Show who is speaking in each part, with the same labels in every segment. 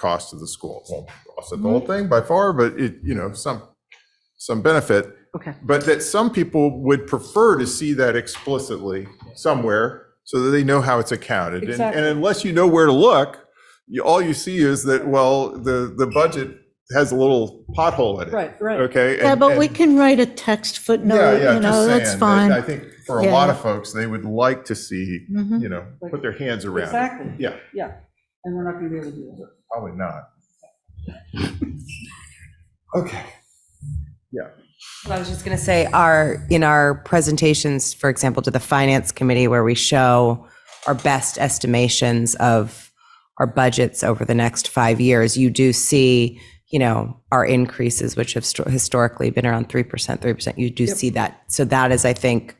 Speaker 1: cost to the school. Won't offset the whole thing by far, but it, you know, some, some benefit.
Speaker 2: Okay.
Speaker 1: But that some people would prefer to see that explicitly somewhere so that they know how it's accounted. And-
Speaker 2: Exactly.
Speaker 1: And unless you know where to look, you, all you see is that, well, the, the budget has a little pothole in it.
Speaker 2: Right, right.
Speaker 1: Okay?
Speaker 3: Yeah,
Speaker 1: and-
Speaker 3: but we
Speaker 1: and-
Speaker 3: can write a text
Speaker 1: Yeah,
Speaker 3: footnote,
Speaker 1: yeah,
Speaker 3: you
Speaker 1: just
Speaker 3: know, that's
Speaker 1: saying that I
Speaker 3: fine.
Speaker 1: think for a lot
Speaker 3: Yeah.
Speaker 1: of folks, they would like to see,
Speaker 3: Mhm.
Speaker 1: you know,
Speaker 2: Like-
Speaker 1: put their hands around. it.
Speaker 2: Exactly.
Speaker 1: Yeah.
Speaker 2: Yeah, and we're not going to be able to do that.
Speaker 1: Probably not. Okay.
Speaker 4: Well, I was just going to say, our, in our presentations, for example, to the finance committee, where we show our best estimations of our budgets over the next five years, you do see, you know, our increases, which have sto- historically been around 3%, 3%. You do see that. So that is, I think,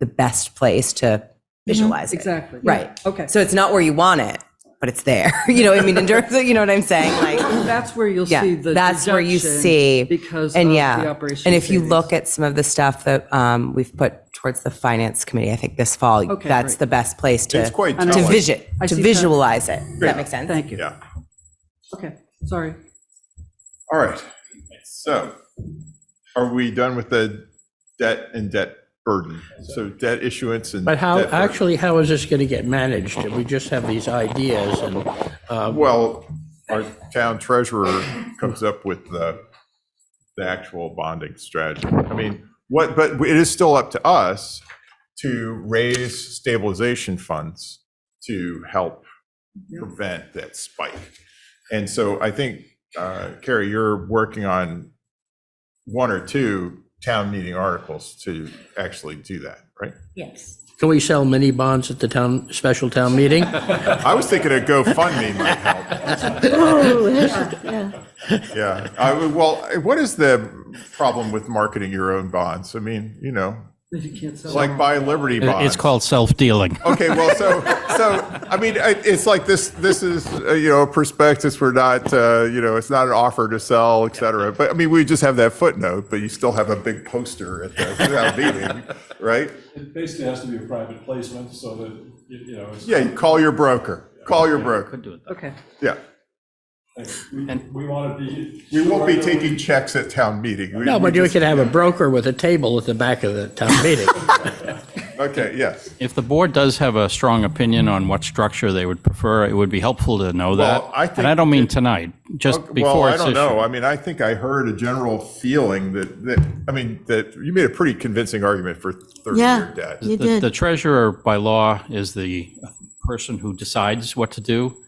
Speaker 4: the best place to visualize it.
Speaker 2: Mm-hmm. Exactly.
Speaker 4: Right.
Speaker 2: Okay,
Speaker 4: So it's not where you want it, but it's there. You know, what I mean, in terms of, you know what I'm saying? Like,
Speaker 2: that's where you'll
Speaker 4: yeah,
Speaker 2: see the
Speaker 4: that's where you
Speaker 2: deduction
Speaker 4: see.
Speaker 2: Because of
Speaker 4: And
Speaker 2: the
Speaker 4: yeah,
Speaker 2: operation.
Speaker 4: and if you
Speaker 2: savings.
Speaker 4: look at some of the stuff that um, we've put towards the finance committee, I think this fall,
Speaker 2: Okay,
Speaker 4: that's
Speaker 2: great.
Speaker 4: the best place to
Speaker 1: It's quite
Speaker 2: And
Speaker 4: to
Speaker 1: telling.
Speaker 4: vision
Speaker 2: I
Speaker 4: to
Speaker 2: see that.
Speaker 4: visualize it. Does that make sense?
Speaker 2: Thank you.
Speaker 1: Yeah.
Speaker 2: Okay, sorry.
Speaker 1: All right. So are we done with the debt and debt burden? So debt issuance and.
Speaker 5: But how,
Speaker 1: debt burden.
Speaker 5: actually, how is this going to get managed? If we just have these ideas and, um,
Speaker 1: Well, Uh, our town treasurer comes up with the, the actual bonding strategy. I mean, what, but it is still up to us to raise stabilization funds to help prevent that spike. And so I think, uh, Carrie, you're working on one or two town meeting articles to actually do that, right?
Speaker 5: can we sell mini bonds at the town, special town meeting?
Speaker 1: I was thinking a GoFundMe might help.
Speaker 3: Oh, that's- yeah.
Speaker 1: Yeah, I, would- well, what is the problem with marketing your own bonds? I mean, you know,
Speaker 2: You can't
Speaker 1: it's
Speaker 2: sell.
Speaker 1: like buy Liberty
Speaker 6: It-
Speaker 1: bonds.
Speaker 6: It's called self-dealing.
Speaker 1: Okay, well, so, so, I mean, I- it's like this, this is, uh, you know, a prospectus, we're not, uh, you know, it's not an offer to sell, et cetera. But, I mean, we just have that footnote, but you still have a big poster at the town meeting, right?
Speaker 7: It basically has to be a private placement so that, you you know, it's.
Speaker 1: Yeah, you call your broker, call your broker,
Speaker 2: Okay,
Speaker 1: yeah.
Speaker 7: We- We want to be.
Speaker 1: We won't be taking checks at town meeting. We-
Speaker 5: No,
Speaker 1: we
Speaker 5: but you
Speaker 1: just-
Speaker 5: could have a broker with a table at the back of the town meeting.
Speaker 1: Okay, yes.
Speaker 6: If the board does have a strong opinion on what structure they would prefer, it would be helpful to know that.
Speaker 1: Well, I think
Speaker 6: And I don't mean tonight, just
Speaker 1: Well,
Speaker 6: before
Speaker 1: I
Speaker 6: it's
Speaker 1: don't
Speaker 6: issued.
Speaker 1: know. I mean, I think I heard a general feeling that, that, I mean, that you made a pretty convincing argument for 30-year
Speaker 3: Yeah.
Speaker 1: debt.
Speaker 3: You
Speaker 6: The- The
Speaker 3: did.
Speaker 6: treasurer by law is the person who decides what to do.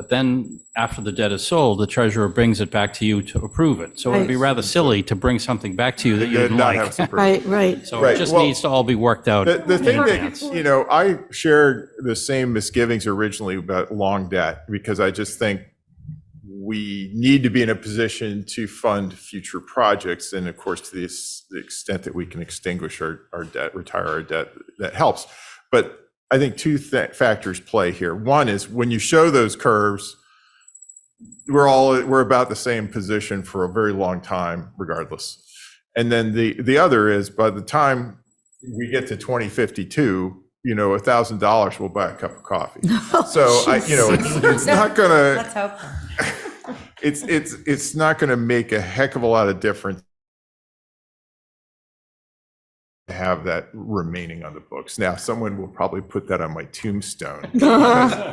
Speaker 6: But then after the debt is sold, the treasurer brings it back to you to approve it. So it would be rather silly to bring something back to you that you
Speaker 1: Did
Speaker 6: didn't
Speaker 1: not have
Speaker 6: like.
Speaker 1: some proof.
Speaker 3: Right, right.
Speaker 6: So
Speaker 1: Right,
Speaker 6: it just
Speaker 1: well,
Speaker 6: needs to all be worked out.
Speaker 1: The, the
Speaker 6: in
Speaker 1: thing
Speaker 6: advance.
Speaker 1: that, you know, I shared the same misgivings originally about long debt because I just think we need to be in a position to fund future projects. And of course, to the s- the extent that we can extinguish our, our debt, retire our debt, that helps. But I think two th- factors play here. One is when you show those curves, we're all, we're about the same position for a very long time regardless. And then the, the other is by the time we get to 2052, you know, a thousand dollars will buy a cup of coffee. So I, you know, it's, it's not gonna,
Speaker 4: Let's hope.
Speaker 1: it's it's it's not going to make a heck of a lot of difference to have that remaining on the books. Now, someone will probably put that on my tombstone.
Speaker 5: Well,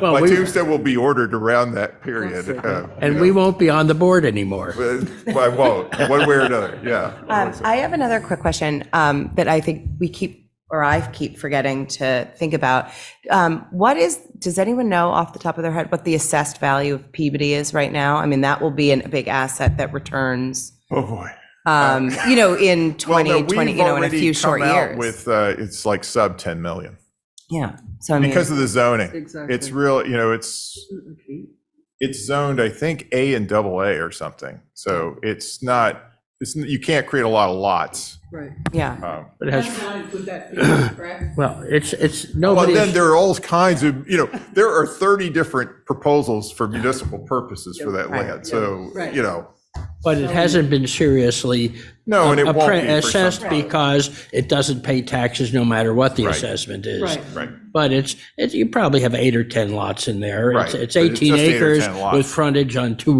Speaker 1: my
Speaker 5: we-
Speaker 1: tombstone will be ordered around that period. uh,
Speaker 5: And we won't be on the board anymore.
Speaker 1: but I won't, one way or another. Yeah.
Speaker 4: Um, I have another quick question um, that I think we keep, or I keep forgetting to think about. Um, What is, does anyone know off the top of their head what the assessed value of Peabody is right now? I mean, that will be an- a big asset that returns,
Speaker 1: oh boy.
Speaker 4: um, you know, in
Speaker 1: Well, no,
Speaker 4: 2020,
Speaker 1: we've
Speaker 4: you know, in a
Speaker 1: already
Speaker 4: few
Speaker 1: come
Speaker 4: short
Speaker 1: out
Speaker 4: years.
Speaker 1: With uh, it's like sub 10 million
Speaker 4: Yeah, so I mean,
Speaker 1: because of the zoning.
Speaker 2: Exactly.
Speaker 1: It's real. You know, it's
Speaker 2: okay.
Speaker 1: it's zoned, I think, A and double A or something. So it's not, it's, you can't create a lot of lots.
Speaker 2: right.
Speaker 4: yeah.
Speaker 1: Um,
Speaker 5: It has, well, it's, it's,
Speaker 1: But then
Speaker 5: nobody's,
Speaker 1: there are all kinds of, you know, there are 30 different proposals for municipal purposes for that
Speaker 4: Right.
Speaker 1: land. So,
Speaker 2: Right.
Speaker 1: you know,
Speaker 5: But it hasn't been seriously.
Speaker 1: No, and it won't
Speaker 5: appre-
Speaker 1: be for some
Speaker 5: Assessed
Speaker 1: time.
Speaker 5: because it doesn't pay taxes no matter what the
Speaker 1: Right.
Speaker 5: assessment is.
Speaker 2: Right.
Speaker 1: Right.
Speaker 5: But it's, it- you probably have eight or 10 lots in there. It's-
Speaker 1: Right,
Speaker 5: It's
Speaker 1: but it's
Speaker 5: 18
Speaker 1: just eight or
Speaker 5: acres
Speaker 1: 10 lots.
Speaker 5: with frontage on two